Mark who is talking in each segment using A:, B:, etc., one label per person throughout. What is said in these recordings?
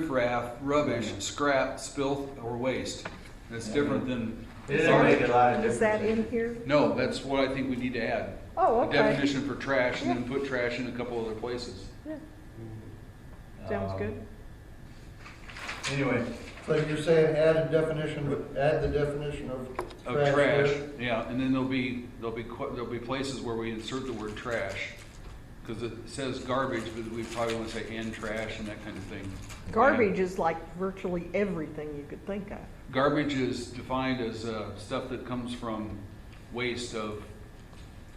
A: riffraff, rubbish, scrap, filth, or waste. That's different than,
B: It didn't make a lot of difference.
C: Is that in here?
A: no, that's what I think we need to add.
C: Oh,
A: A
C: okay.
A: definition for trash and then put trash in a couple other places.
C: Sounds
B: Um,
C: good.
B: Anyway,
D: So you're saying add a definition, add the definition of
A: Of
D: trash.
A: trash,
D: there?
A: yeah, and then there'll be, there'll be, qu- there'll be places where we insert the word trash. Cause it says garbage, but we probably wanna say and trash and that kind of thing.
C: Garbage is like virtually everything you could think of.
A: Garbage is defined as, uh, stuff that comes from waste of,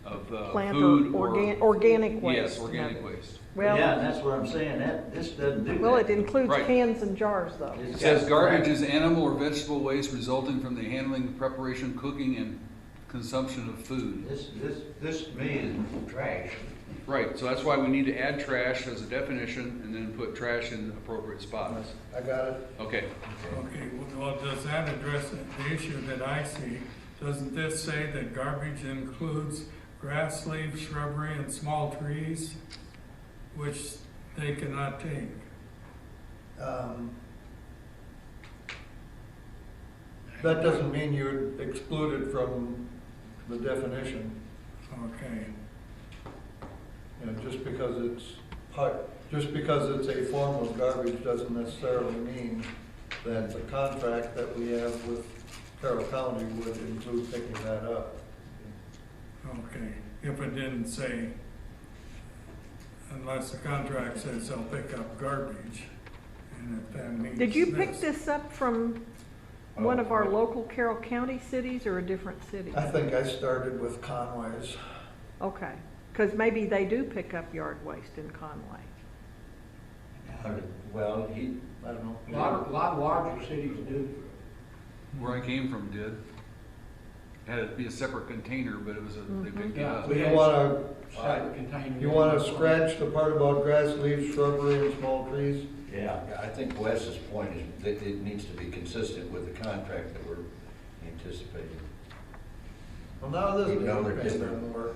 A: of, uh,
C: Plant
A: food
C: or
A: or.
C: organ, organic waste.
A: Yes, organic
C: no.
A: waste.
B: yeah, and
C: Well,
B: that's what I'm saying, that, this doesn't do that.
C: well, it includes
A: Right.
C: cans and jars though.
B: It's
A: It says
B: got-
A: garbage is animal or vegetable waste resulting from the handling, preparation, cooking, and consumption of food.
B: This, this, this to me is trash.
A: Right, so that's why we need to add trash as a definition and then put trash in appropriate spots.
D: I got it.
A: Okay,
E: Okay, well, does that address the issue that I see? Doesn't this say that garbage includes grass, leaves, shrubbery, and small trees, which they cannot take?
D: Um, That doesn't mean you're excluded from the definition,
E: Okay,
D: you know, just because it's part, just because it's a form of garbage doesn't necessarily mean that the contract that we have with Carroll County would include picking that up.
E: okay, if it didn't say, unless the contract says they'll pick up garbage, and if that means.
C: Did you pick this up from one of our local Carroll County cities or a different city?
D: I think I started with Conway's.
C: Okay, because maybe they do pick up yard waste in Conway.
B: Well, he,
D: I don't know.
F: A lot, a lot of larger cities do.
A: where I came from did. Had it be a separate container, but it was, a they picked it
C: Mm-hmm.
A: up.
D: So you wanna,
F: Side container.
D: you wanna scratch the part about grass, leaves, shrubbery, and small trees?
B: yeah,
G: Yeah, I think Wes's point is that it needs to be consistent with the contract that we're anticipating.
D: Well, now this
G: You know they're
D: pen
G: different.
D: doesn't work.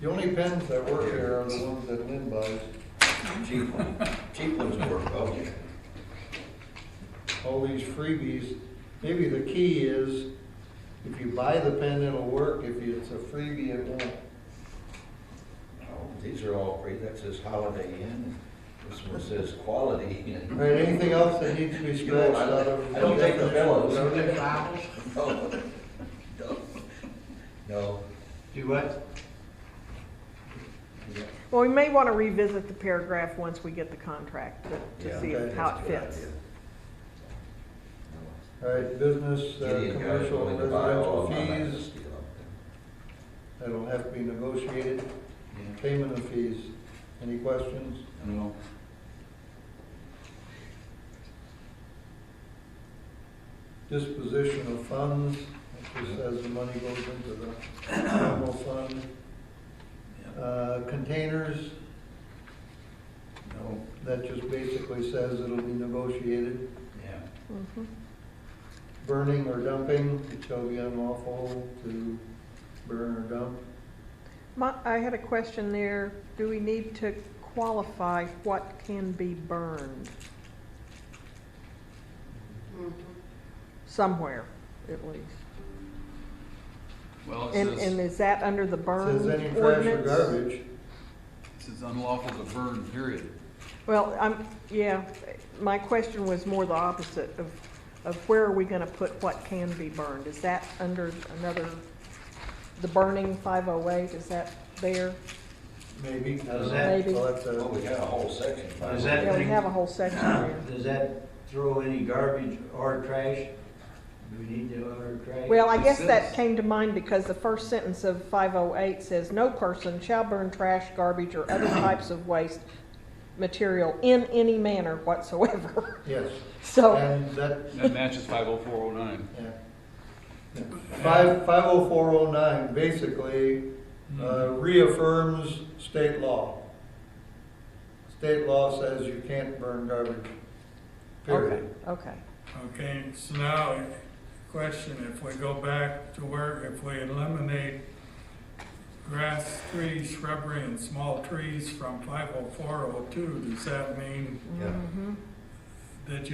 D: The only pens that work here are the ones that Lynn buys.
G: Cheap one, cheap ones work, okay.
D: All these freebies, maybe the key is, if you buy the pen, it'll work. If it's a freebie, it won't.
G: No, Oh, These are all free, that says Holiday Inn, this one says Quality
D: All
G: Inn.
D: right, anything else that needs to be
G: You know,
D: scratched out of?
G: I I don't take the pillows.
F: You take Bibles?
G: No. No. No,
B: do what?
C: Well, we may want to revisit the paragraph once we get the contract to-
G: yeah.
C: to see
D: okay,
C: how
G: that's
C: it
G: a good
C: fits.
G: idea.
D: All right, business,
G: No.
D: uh,
G: Gideon guys
D: commercial,
G: wanted to buy all
D: residential
G: of my
D: fees,
G: business deal up there.
D: that'll have to be negotiated.
B: Yeah.
D: Payment of fees. Any questions?
A: No.
D: disposition of funds, it just says the money goes into the general fund. Uh, containers,
B: No,
D: that just basically says it'll be negotiated.
B: yeah.
C: Mhm.
D: Burning or dumping, it shall be unlawful to burn or dump.
C: My, I had a question there. Do we need to qualify what can be burned? Somewhere, at least.
A: Well, it
C: And, and
A: says,
C: is that under the burn
D: Says any
C: ordinance?
D: trash or garbage,
A: it says unlawful to burn, period.
C: Well, I'm, yeah, my question was more the opposite of, of where are we gonna put what can be burned? Is that under another, the burning five oh eight, is that there?
D: maybe. I don't
B: Does
D: know.
B: that-
C: Maybe.
D: Well, that's a-
G: Well, we got a whole section. by
B: Is
G: the
B: that-
C: Yeah, we have a whole section there.
B: Does that throw any garbage or trash? Do we need to order trash?
C: Well, I
A: It
C: guess that
A: says-
C: came to mind because the first sentence of five oh eight says, "No person shall burn trash, garbage, or other types of waste material in any manner whatsoever."
D: Yes,
C: So,
D: and that,
A: That matches five oh four oh nine.
D: yeah. Five, five oh four oh nine basically uh,
B: Mm-hmm.
D: reaffirms state law. State law says you can't burn garbage,
C: okay,
D: period.
C: okay.
E: Okay, so now, question, if we go back to where, if we eliminate grass, trees, shrubbery, and small trees from five oh four oh two, does that mean
G: Yeah.
C: Mhm.